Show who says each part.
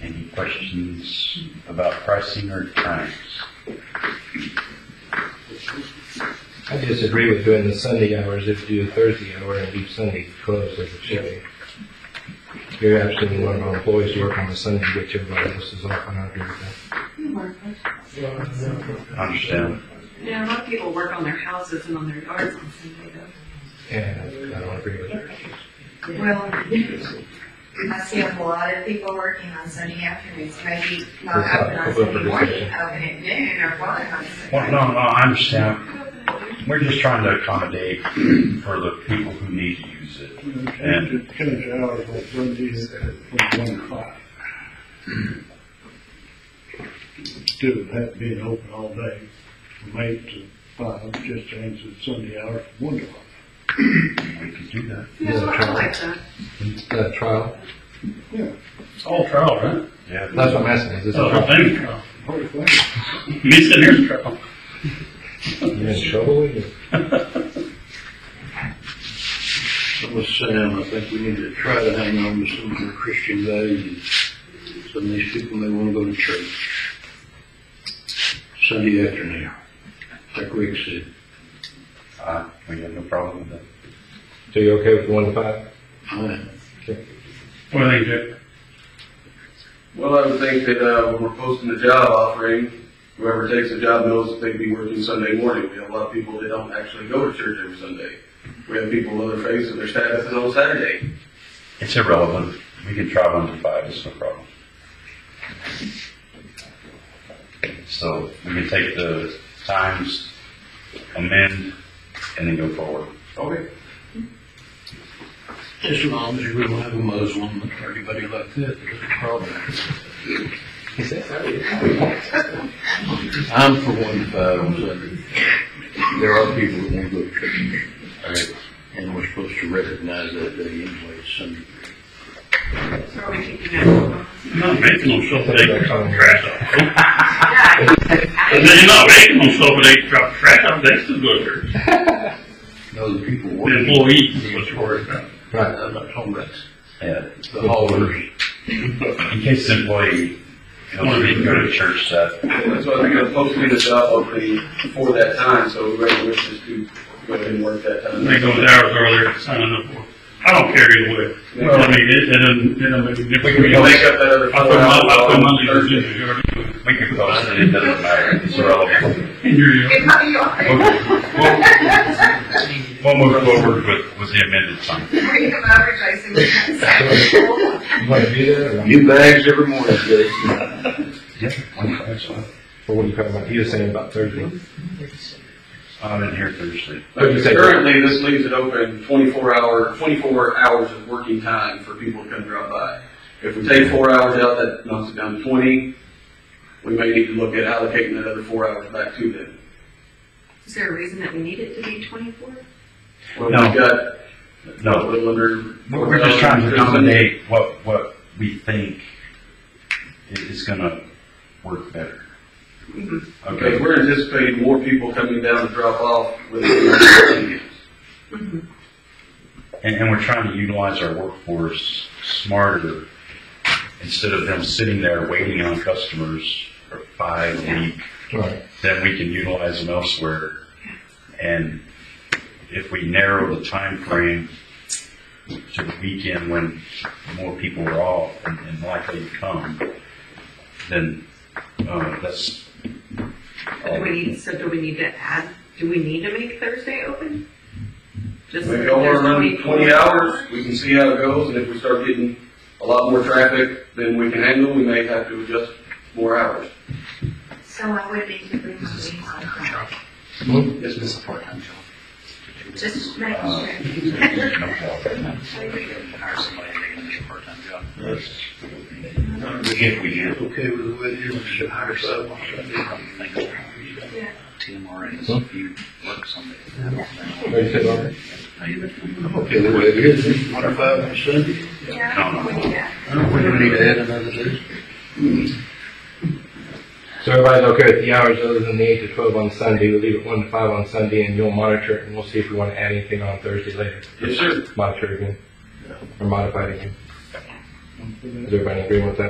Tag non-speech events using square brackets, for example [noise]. Speaker 1: Any questions about pricing or times?
Speaker 2: I disagree with doing the Sunday hours if you do the Thursday hour and leave Sunday closed as it should be. You're actually allowing our employees to work on a Sunday, which everybody else is off, and I agree with that.
Speaker 1: Understand?
Speaker 3: Yeah, a lot of people work on their houses and on their yards on Sunday though.
Speaker 2: And I don't agree with that.
Speaker 4: Well, I see a lot of people working on Sunday afternoons, maybe not
Speaker 2: That's not
Speaker 4: open on
Speaker 2: open for
Speaker 4: Sunday morning,
Speaker 2: discussion.
Speaker 4: open at noon or what on
Speaker 1: Well,
Speaker 4: Sunday.
Speaker 1: no, no, I understand. We're just trying to accommodate for the people who need to use it.
Speaker 5: And change hours on Sundays from one o'clock. Instead of that being open all day from eight to five, just change the Sunday hour from one to five.
Speaker 1: We could do that.
Speaker 3: Yeah, I like that.
Speaker 2: It's a trial.
Speaker 6: It's all trial, right?
Speaker 1: Yeah.
Speaker 2: That's what I'm asking, is this a
Speaker 6: The whole
Speaker 2: trial?
Speaker 6: thing's trial.
Speaker 5: Whole thing.
Speaker 6: Me sitting here's trial.
Speaker 2: You're in trouble with it?
Speaker 7: I'm with Sam, I think we need to try to hang on to some of the Christian values. Some of these people may want to go to church Sunday afternoon, like Rick said.
Speaker 1: Uh, we have no problem with that.
Speaker 2: So you're okay with the one to five?
Speaker 7: Fine.
Speaker 6: What do you think, Jack?
Speaker 8: Well, I would think that uh, when we're posting the job offering, whoever takes the job knows that they'd be working Sunday morning. We have a lot of people that don't actually go to church every Sunday. We have people with other faiths and their status is on Saturday.
Speaker 1: It's irrelevant. We can try one to five, it's no problem. So we can take the times, amend, and then go forward.
Speaker 8: Okay.
Speaker 7: As long as we don't have a Muslim or anybody like that, there's a problem.
Speaker 2: Is that how it is?
Speaker 7: I'm for one to five on Sunday. There are people that want to go to church.
Speaker 1: Okay.
Speaker 7: And we're supposed to recognize that day anyway, it's Sunday.
Speaker 3: So are we keeping that?
Speaker 6: You're not making them show that they can drop trash off.
Speaker 3: Yeah,
Speaker 6: And then you're not making them show that they can drop trash off, they still go to church.
Speaker 7: No, the people
Speaker 6: The
Speaker 7: working.
Speaker 6: employees is what you're worried about.
Speaker 2: Right.
Speaker 7: I'm not talking about
Speaker 1: Yeah,
Speaker 7: the haulers.
Speaker 1: in case the employee feels free to go to church that,
Speaker 8: That's why we're gonna post the job opening for that time, so whoever wishes to go ahead and work that time.
Speaker 6: They go an hours earlier, signing up for it. I don't care either way. I mean, it, it doesn't, it doesn't make a
Speaker 1: We
Speaker 6: difference.
Speaker 1: can
Speaker 8: We can make up that other
Speaker 6: I
Speaker 8: four
Speaker 6: put my, I put my
Speaker 8: hours on
Speaker 6: leaders in
Speaker 8: Thursday.
Speaker 6: there, already do it.
Speaker 1: we could post it, it doesn't matter, it's irrelevant.
Speaker 6: and you're,
Speaker 4: It's not yours.
Speaker 1: We'll- we'll- We'll move forward with, with the amended time.
Speaker 4: [laughs] Bring them over, Jason. we can say.
Speaker 2: You want to do that, or not?
Speaker 7: New bags every morning, Jason.
Speaker 1: Yeah. one five, so
Speaker 2: Or what are you talking about? He was saying about Thursday.
Speaker 1: I'm in here Thursday.
Speaker 2: What'd you say?
Speaker 8: Currently, this leaves it open twenty-four hour, twenty-four hours of working time for people to come drop by. If we take four hours out, that knocks it down to twenty. We may need to look at allocating that other four hours back to them.
Speaker 3: Is there a reason that we need it to be twenty-four?
Speaker 8: Well,
Speaker 1: No.
Speaker 8: we've got a
Speaker 1: No,
Speaker 8: little under.
Speaker 1: we're we're just trying to accommodate what, what we think i- is gonna work better.
Speaker 3: Mhm.
Speaker 1: Okay,
Speaker 8: Okay, we're anticipating more people coming down to drop off with [coughs] the.
Speaker 1: And, and we're trying to utilize our workforce smarter instead of them sitting there waiting on customers for five weeks.
Speaker 2: Right.
Speaker 1: Then we can utilize them elsewhere. And if we narrow the time frame to the weekend when more people are off and, and likely to come, then, uh, that's.
Speaker 3: Do we need, so do we need to add, do we need to make Thursday open? Just
Speaker 8: We go
Speaker 3: there's
Speaker 8: around
Speaker 3: 24
Speaker 8: twenty hours, we can see how it goes, and if we start getting a lot more traffic than we can handle, we may have to adjust more hours.
Speaker 4: So I would need to bring my leaves on that.
Speaker 8: Yes, ma'am.
Speaker 4: Just making
Speaker 1: Uh,
Speaker 4: sure.
Speaker 7: If we get okay with the way it is, we should hire someone.
Speaker 2: What'd you say, Robert?
Speaker 7: I'm okay with the way it is, one to five on Sunday.
Speaker 4: Yeah, we can.
Speaker 7: I don't think we need to add another day.
Speaker 2: So everybody's okay with the hours other than the eight to twelve on Sunday, we leave it one to five on Sunday, and you'll monitor it, and we'll see if we want to add anything on Thursday later.
Speaker 8: Yes, sir.
Speaker 2: Monitor again, or modify it again.
Speaker 5: for that.
Speaker 2: Is everybody in agreement with that